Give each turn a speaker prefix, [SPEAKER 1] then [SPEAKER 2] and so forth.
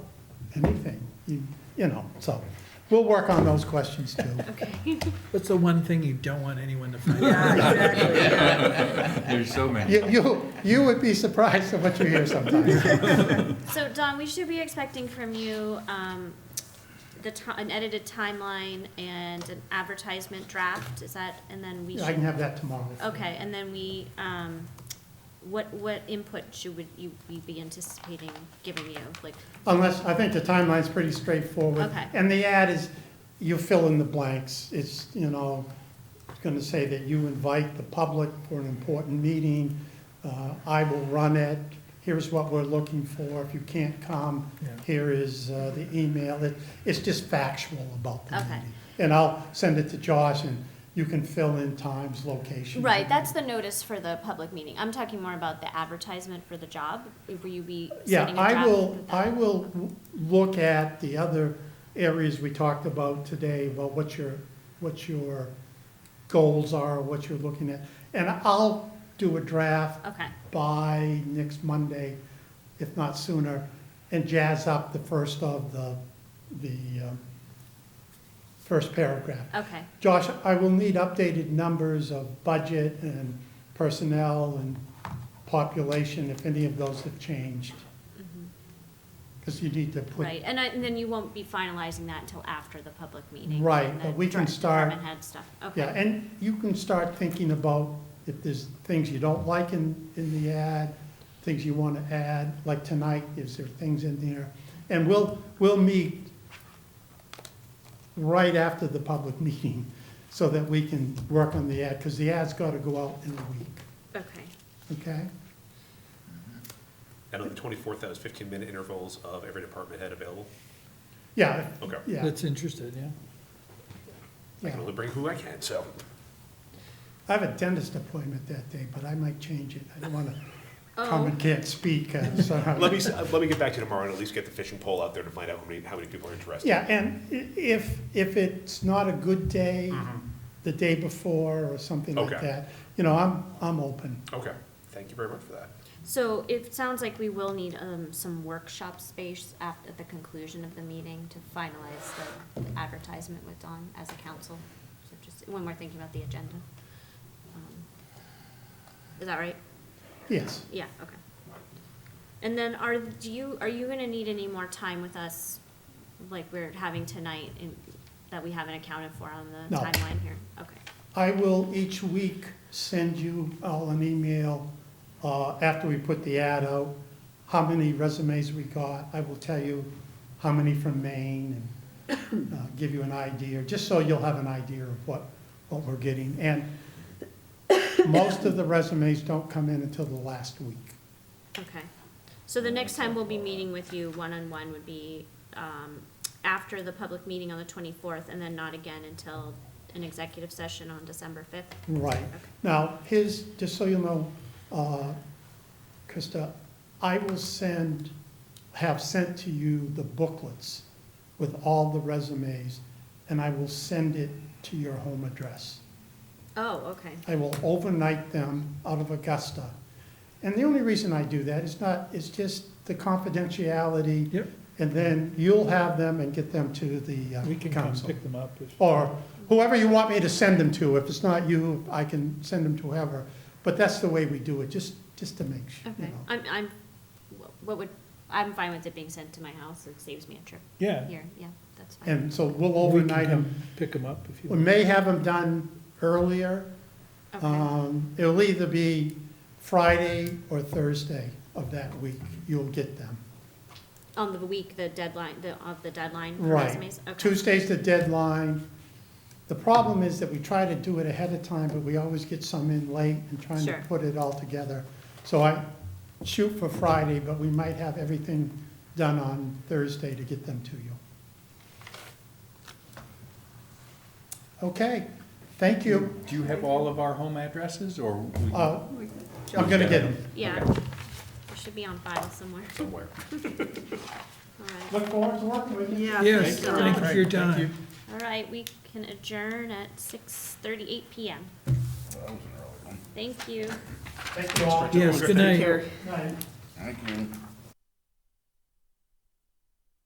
[SPEAKER 1] anything, you, you know, so we'll work on those questions too.
[SPEAKER 2] Okay.
[SPEAKER 3] What's the one thing you don't want anyone to find
[SPEAKER 4] Yeah,
[SPEAKER 3] out?
[SPEAKER 4] exactly, yeah.
[SPEAKER 5] There's so many.
[SPEAKER 1] You, you, you would be surprised at what you hear sometimes.
[SPEAKER 2] So Don, we should be expecting from you, um, the ti- an edited timeline and an advertisement draft, is that, and then we should.
[SPEAKER 1] I can have that tomorrow.
[SPEAKER 2] Okay, and then we, um, what, what input should we, you, we be anticipating giving you, like,
[SPEAKER 1] Unless, I think the timeline's pretty straightforward.
[SPEAKER 2] Okay.
[SPEAKER 1] And the ad is, you fill in the blanks. It's, you know, it's going to say that you invite the public for an important meeting. Uh, I will run it. Here's what we're looking for. If you can't come,
[SPEAKER 3] Yeah.
[SPEAKER 1] here is uh, the email. It- It's just factual about the
[SPEAKER 2] Okay.
[SPEAKER 1] meeting. And I'll send it to Josh, and you can fill in times, locations.
[SPEAKER 2] right, that's the notice for the public meeting, I'm talking more about the advertisement for the job, will you be
[SPEAKER 1] Yeah,
[SPEAKER 2] sending a
[SPEAKER 1] I
[SPEAKER 2] draft?
[SPEAKER 1] will,
[SPEAKER 2] with that?
[SPEAKER 1] I will w- look at the other areas we talked about today, about what your, what your goals are, what you're looking at. And I'll do a draft
[SPEAKER 2] Okay,
[SPEAKER 1] by next Monday, if not sooner, and jazz up the first of the, the um, first paragraph.
[SPEAKER 2] okay,
[SPEAKER 1] Josh, I will need updated numbers of budget and personnel and population, if any of those have changed. Because you need to put,
[SPEAKER 2] right, and I, and then you won't be finalizing that until after the public meeting?
[SPEAKER 1] Right,
[SPEAKER 2] and the
[SPEAKER 1] but we can
[SPEAKER 2] direct
[SPEAKER 1] start-
[SPEAKER 2] Department head stuff,
[SPEAKER 1] yeah,
[SPEAKER 2] okay,
[SPEAKER 1] and you can start thinking about if there's things you don't like in, in the ad, things you want to add, like tonight, is there things in there? And we'll, we'll meet right after the public meeting, so that we can work on the ad, because the ad's got to go out in a week,
[SPEAKER 2] okay,
[SPEAKER 1] okay?
[SPEAKER 6] And on the twenty-fourth, that was fifteen-minute intervals of every department head available.
[SPEAKER 1] Yeah,
[SPEAKER 6] Okay.
[SPEAKER 1] yeah.
[SPEAKER 3] That's interested, yeah.
[SPEAKER 6] I can
[SPEAKER 1] Yeah.
[SPEAKER 6] only bring who I can, so.
[SPEAKER 1] I have a dentist appointment that day, but I might change it. I don't want to come
[SPEAKER 2] oh,
[SPEAKER 1] and can't speak. uh, so-
[SPEAKER 6] Let me, s- let me get back to you tomorrow and at least get the fishing pole out there to find out how many, how many people are interested.
[SPEAKER 1] Yeah, and i- if, if it's not a good day, the day before or something like
[SPEAKER 6] Mm-hmm. Okay.
[SPEAKER 1] that, you know, I'm, I'm open.
[SPEAKER 6] Okay, thank you very much for that.
[SPEAKER 2] so it sounds like we will need, um, some workshop space af at the conclusion of the meeting to finalize the advertisement with Don as a council, so just, when we're thinking about the agenda. Um, Is that right?
[SPEAKER 1] Yes.
[SPEAKER 2] Yeah, okay. And then are, do you, are you gonna need any more time with us, like we're having tonight, in- that we haven't accounted for on the
[SPEAKER 1] No.
[SPEAKER 2] timeline here? Okay,
[SPEAKER 1] I will each week send you all an email, uh, after we put the ad out, how many resumes we got. I will tell you how many from Maine and, uh, give you an idea, just so you'll have an idea of what, what we're getting. And most of the resumes don't come in until the last week.
[SPEAKER 2] okay. So the next time we'll be meeting with you one-on-one would be, um, after the public meeting on the twenty-fourth, and then not again until an executive session on December fifth?
[SPEAKER 1] Right. Now, his, just so you know, uh, Krista, I will send, have sent to you the booklets with all the resumes, and I will send it to your home address.
[SPEAKER 2] Oh, okay,
[SPEAKER 1] I will overnight them out of Augusta. And the only reason I do that is not, it's just the confidentiality.
[SPEAKER 3] Yep,
[SPEAKER 1] And then you'll have them and get them to the uh,
[SPEAKER 3] we can come
[SPEAKER 1] council.
[SPEAKER 3] pick them up. if-
[SPEAKER 1] or whoever you want me to send them to. If it's not you, I can send them to whoever. But that's the way we do it, just, just to make sure, you
[SPEAKER 2] okay.
[SPEAKER 1] know.
[SPEAKER 2] I'm, I'm, what would, I'm fine with it being sent to my house, it saves me a trip
[SPEAKER 3] Yeah.
[SPEAKER 2] here, yeah, that's fine.
[SPEAKER 1] And so we'll
[SPEAKER 3] we can
[SPEAKER 1] overnight them.
[SPEAKER 3] come Pick them up if you
[SPEAKER 1] We
[SPEAKER 3] want.
[SPEAKER 1] may have them done earlier.
[SPEAKER 2] Okay.
[SPEAKER 1] Um, It'll either be Friday or Thursday of that week, you'll get them.
[SPEAKER 2] On the week, the deadline, the, of the deadline for
[SPEAKER 1] Right.
[SPEAKER 2] resumes? Okay.
[SPEAKER 1] Tuesday's the deadline. The problem is that we try to do it ahead of time, but we always get some in late and trying to
[SPEAKER 2] Sure.
[SPEAKER 1] put it all together. So I shoot for Friday, but we might have everything done on Thursday to get them to you. Okay, thank you.
[SPEAKER 5] Do you have all of our home addresses, or? we-
[SPEAKER 1] Uh, I'm gonna get them.
[SPEAKER 2] Yeah,
[SPEAKER 5] Okay.
[SPEAKER 2] it should be on file somewhere,
[SPEAKER 6] Somewhere.
[SPEAKER 2] all right.
[SPEAKER 1] Look forward to working with you.
[SPEAKER 4] Yeah,
[SPEAKER 3] Yes,
[SPEAKER 4] for sure.
[SPEAKER 3] thank you for your
[SPEAKER 5] Right, thank you.
[SPEAKER 3] time.
[SPEAKER 2] All right, we can adjourn at six thirty-eight PM. Thank you.
[SPEAKER 1] Thank you all.
[SPEAKER 3] Yes, good night.
[SPEAKER 4] Here.
[SPEAKER 1] Night.
[SPEAKER 7] Thank you.